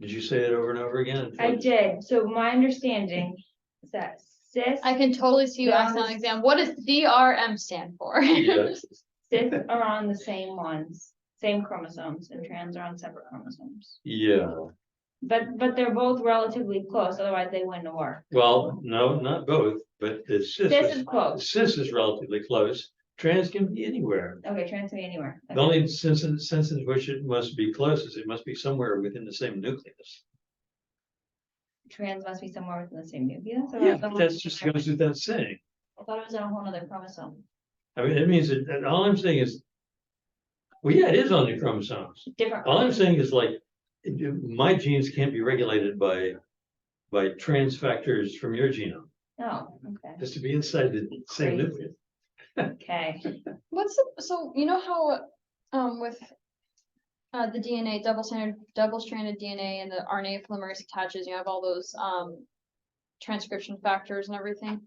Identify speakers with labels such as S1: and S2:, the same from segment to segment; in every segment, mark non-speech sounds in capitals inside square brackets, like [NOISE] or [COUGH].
S1: Did you say it over and over again?
S2: I did, so my understanding is that cis,
S3: I can totally see you asking that exam. What does DRM stand for? [LAUGHS]
S1: Yeah.
S2: [LAUGHS] cis are on the same ones, same chromosomes, and trans are on separate chromosomes.
S1: Yeah,
S2: But, but they're both relatively close, otherwise they wouldn't have worked.
S1: well, no, not both, but the
S2: Cis
S1: cis
S2: is close,
S1: is, cis is relatively close. Trans can be anywhere.
S2: okay, trans can be anywhere.
S1: The only sense, in- sense in which it must be close is it must be somewhere within the same nucleus.
S2: Trans must be somewhere within the same nucleus. or
S1: Yeah,
S2: somewhere
S1: that's just
S2: within-
S1: goes without saying.
S2: I thought it was on a whole other chromosome,
S1: I mean, it means that, that all I'm saying is. Well, yeah, it is on the chromosomes.
S2: different.
S1: All I'm saying is like, it- my genes can't be regulated by. By trans factors from your genome,
S2: Oh, okay,
S1: just to be inside the same
S2: Crazy.
S1: nucleus.
S2: okay,
S3: What's, the- so you know how, um, with. Uh, the DNA, double standard, double stranded DNA and the RNA polymerase attaches, you have all those, um. Transcription factors and everything.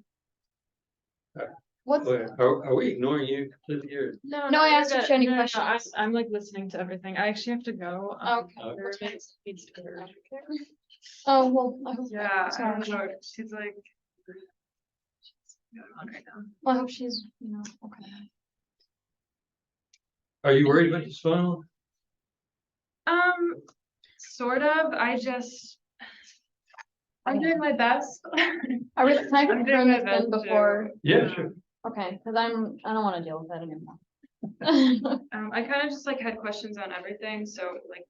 S1: Uh,
S3: What's,
S1: Wait, Are, are we ignoring you completely or?
S4: No,
S3: No, I
S4: you're
S3: asked if
S4: good.
S3: she had any
S4: No, no, no, I-
S3: questions.
S4: I'm like listening to everything. I actually have to go. um,
S3: Okay.
S4: my
S3: What's
S4: roommate
S3: next?
S4: needs to go.
S3: oh, well. I hope-
S4: Yeah, I
S3: sorry.
S4: don't know. She's like. she's going on right now.
S3: Well, I hope she's, you know, okay.
S1: Are you worried about this funnel?
S4: Um, sort of, I just. I'm doing my best.
S3: [LAUGHS] I really, can I
S4: I'm doing
S3: confirm
S4: my
S3: it's been
S4: best to-
S3: before?
S1: Yeah, sure.
S3: Okay, cause I'm, I don't wanna deal with that
S4: [LAUGHS]
S3: anymore. [LAUGHS]
S4: Um, I kind of just like had questions on everything, so like.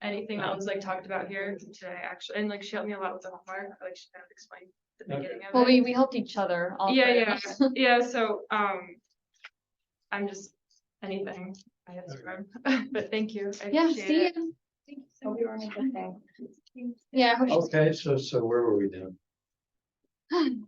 S4: Anything that was like talked about here today, actually, and like she helped me a lot with the homework, like she kind of explained the
S1: Okay.
S4: beginning of it.
S3: Well, we, we helped each other. all
S4: Yeah,
S3: three of
S4: yeah,
S3: us. [LAUGHS]
S4: yeah, so, um. I'm just, anything I have to learn, [LAUGHS] but thank you. I
S3: Yeah,
S4: appreciate
S3: see,
S4: it.
S3: ya.
S2: hope you're on a good thing.
S3: yeah, I hope she's
S1: Okay, so, so where were we then?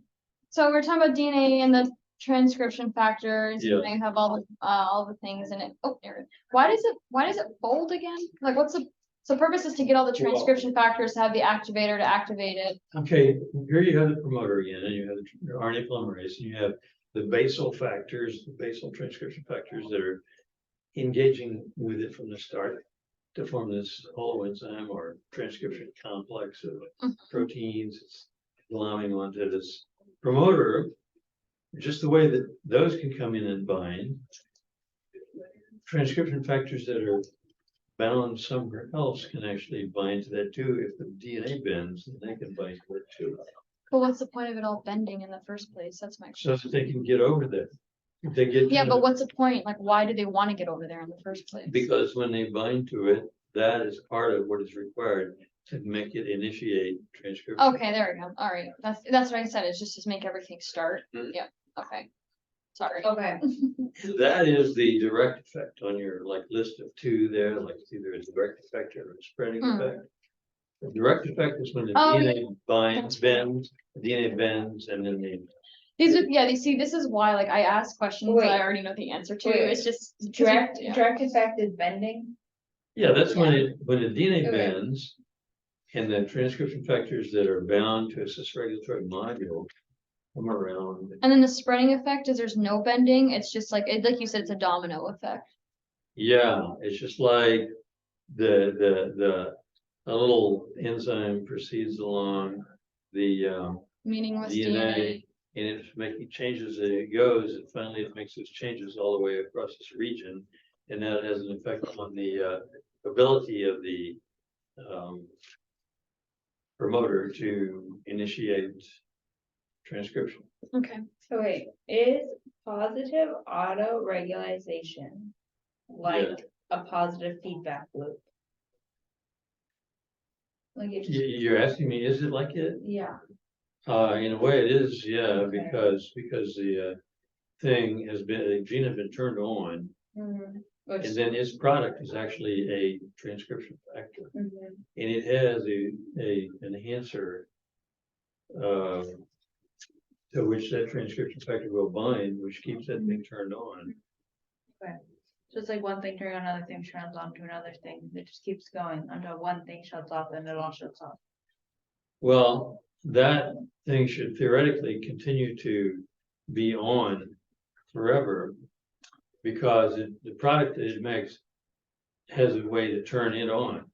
S3: So we're talking about DNA and the transcription factors,
S1: Yeah.
S3: and they have all, the uh, all the things in it. Oh, there it is. Why does it, why does it fold again? Like, what's the, so purpose is to get all the
S1: Well-
S3: transcription factors, to have the activator to activate it.
S1: Okay, here you have the promoter again, and you have the RNA polymerase, and you have the basal factors, the basal transcription factors that are engaging with it from the start to form this whole enzyme or transcription complex of
S3: Mhm.
S1: proteins, it's allowing onto this promoter. Just the way that those can come in and bind. Transcription factors that are bound somewhere else can actually bind to that too. If the DNA bends, then they can bind to it too.
S3: But what's the point of it all bending in the first place? That's my,
S1: So that they can get over there. If They get.
S3: yeah, but what's the point? Like, why do they want to get over there in the first place?
S1: Because when they bind to it, that is part of what is required to make it initiate transcription.
S3: Okay, there we go. All right, that's, that's what I said. It's just to make everything start.
S1: Mm.
S3: Yeah, okay. Sorry.
S2: Okay,
S1: That is the direct effect on your like list of two there, like it's either a direct effect or a spreading
S3: Hmm.
S1: effect. The direct effect is when the
S3: Oh,
S1: DNA binds,
S3: That's right.
S1: bends, DNA bends, and then they
S3: These are, yeah, they see, this is why, like, I ask questions that I
S2: Wait.
S3: already know the answer to.
S2: Wait.
S3: It's just.
S2: direct,
S3: Yeah.
S2: direct effect is bending,
S1: Yeah, that's when it, when the DNA
S2: Okay.
S1: bends. And the transcription factors that are bound to a cis-regulatory module come around,
S3: And then the spreading effect is there's no bending. It's just like, it, like you said, it's a domino effect.
S1: yeah, it's just like. The, the, the, a little enzyme proceeds along the, um,
S3: Meaningless
S1: DNA.
S3: DNA.
S1: and it's making changes as it goes, and finally it makes those changes all the way across this region. And that has an effect on the uh, ability of the um, promoter to initiate transcription.
S3: Okay.
S2: so wait, is positive auto-regulation like a positive feedback loop? Like it
S1: You,
S2: just,
S1: you're asking me, is it like it?
S2: yeah,
S1: Uh, in a way it is, yeah,
S2: Okay.
S1: because, because the uh, thing has been, the gene has been turned on. And
S2: Mhm. Which-
S1: then its product is actually a transcription factor.
S2: mhm.
S1: And it has a, a enhancer. um, To which that transcription factor will bind, which keeps that thing turned on.
S2: just like one thing turning on another thing turns on to another thing, it just keeps going until one thing shuts off and it all shuts off.
S1: Well, that thing should theoretically continue to be on forever. Because it- the product that it makes has a way to turn it on.